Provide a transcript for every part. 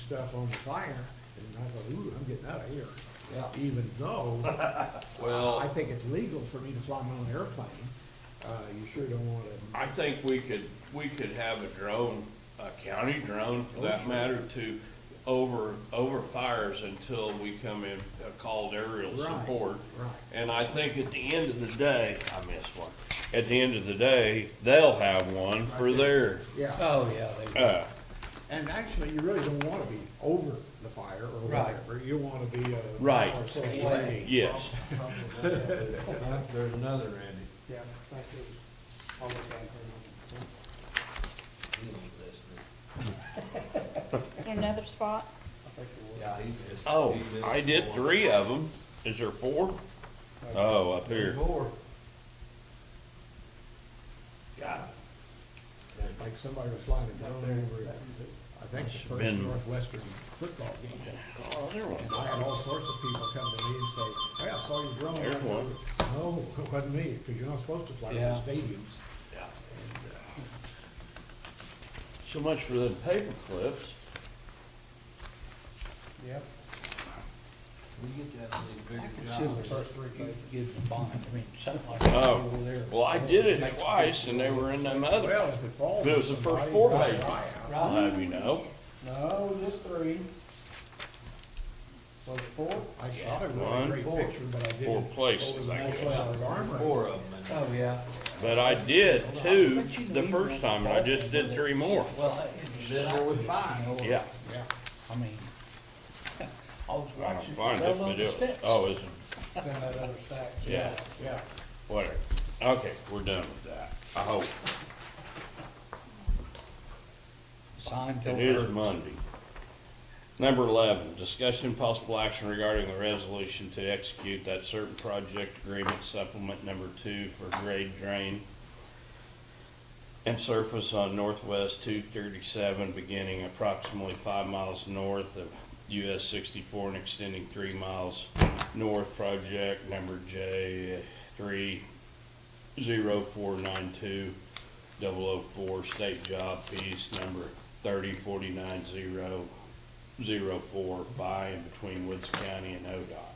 stuff on the fire, and I go, ooh, I'm getting out of here. Yeah. Even though, I Well, think it's legal for me to fly my own airplane, uh, you sure don't wanna, I think we could, we could have a drone, a county drone for that matter, to over, over fires until we come in, uh, called aerial Right, support. right. And I think at the end of the day, I missed one, at the end of the day, they'll have one for their, yeah. Oh, yeah, they, uh, And actually, you really don't wanna be over the fire or Right. whatever, you wanna be, uh. Right. or so Way. away. yes. There's another Randy. Yeah, that is almost unheard He ain't listening. in another spot? of. I think it was. Yeah, he missed. Oh, he missed I did one. three of them. Is there four? Oh, up here. Four. God, Like somebody was flying a drone over, I think the first Been- Northwestern football game. Oh, there one. And I had all sorts of people come to me and say, hey, I saw your drone. There's I go, one. No, it wasn't me, because you're not supposed to fly in Yeah. stadiums. Yeah. So much for them paper clips. Yep. We get that big bigger it's job. just the first three pages, give the bond, I mean, something like that Oh, over there. well, I did it twice and they were in them other. Well, if it falls. But it was the on first somebody, four that's pages. right. I'll have you know. No, just three. Was it four? I shot a One, really great four. picture, but I didn't. Four places, over the I National guess. Guard's armory. Four of them. Oh, yeah. But I did two the first time and I just did three more. Well, Been there with five. Yeah. Yeah, I mean, I was I don't watching. find it, fell on but the it, steps. oh, isn't, It's in that other stack. yeah, yeah. whatever. Okay, we're done with that, I hope. Sign It don't is hurt. Monday. Number eleven, discussion possible action regarding the resolution to execute that certain project agreement supplement number two for grade drain and surface on northwest two thirty-seven, beginning approximately five miles north of US sixty-four and extending three miles north, project number J three zero four nine two 004, state job piece number 3049004, by and between Woods County and ODOT.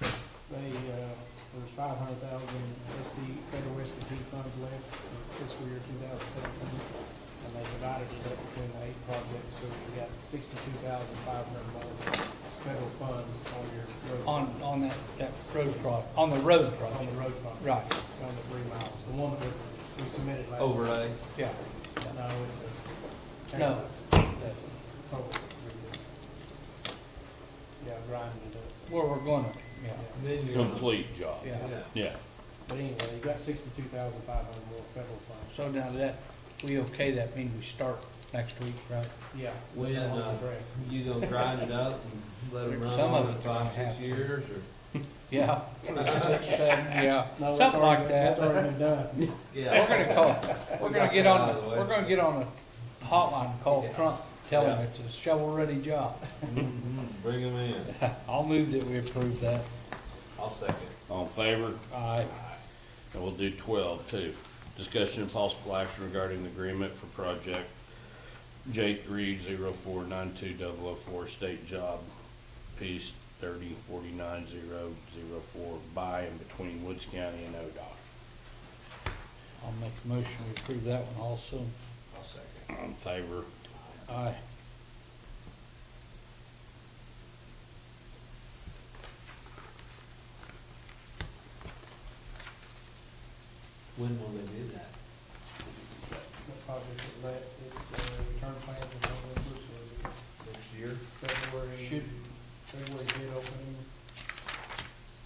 They, uh, there's five hundred thousand SD, federal SDP funds left for fiscal year two thousand seventeen. And they divided it up between the eight projects, so you got sixty-two thousand five hundred dollars federal funds on your road. On, on that, that road project, on the road On the project, road fund. right, On the three miles, the one that we submitted last. Overlay. yeah. time. No, it's a. No. That's a public agreement. Yeah, Brian did it. Where we're going, yeah, Then you're. Complete job. yeah. Yeah. Yeah. But anyway, you got sixty-two thousand five hundred more federal funds. So now that, we okay, that means we start next week, right? Yeah. When, On the uh, grant. You gonna grind it up and let them run Some on of it it's gonna five, six happen. years or? Yeah. Six, seven, yeah, No, that's something already- like That's that. already been done. We're Yeah. gonna call, we're gonna get Out of on, the way. we're gonna get on a hotline, and call Trump, tell him it's a shovel-ready job. Mm-hmm. Bring them in. I'll move that we approve that. I'll second. All in favor? Aye. And we'll do twelve too. Discussion and possible action regarding the agreement for project J three zero four nine two double oh four, state job piece thirty forty-nine zero zero four, by and between Woods County and ODOT. I'll make a motion, we approve that one also. I'll second. All in favor? Aye. When will they do that? That project is let, it's, uh, return plan for November, so Next year? it's February. Should February bid opening.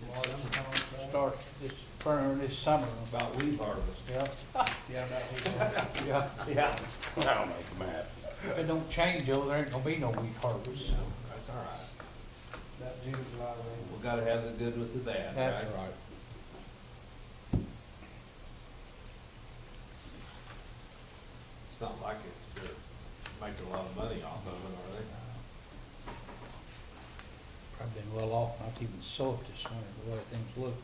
March contract. start this, burn this summer about, About wheat harvest. yeah, Yeah, about here. yeah, yeah. That'll make them happy. If it don't change, though, there ain't gonna be no wheat harvest. Yeah, that's all right. That June, July range. We gotta have the good with the bad, That's right? right. It's not like it's, they're making a lot of money off of it, Probably been well off, not even sold this winter, the way things look.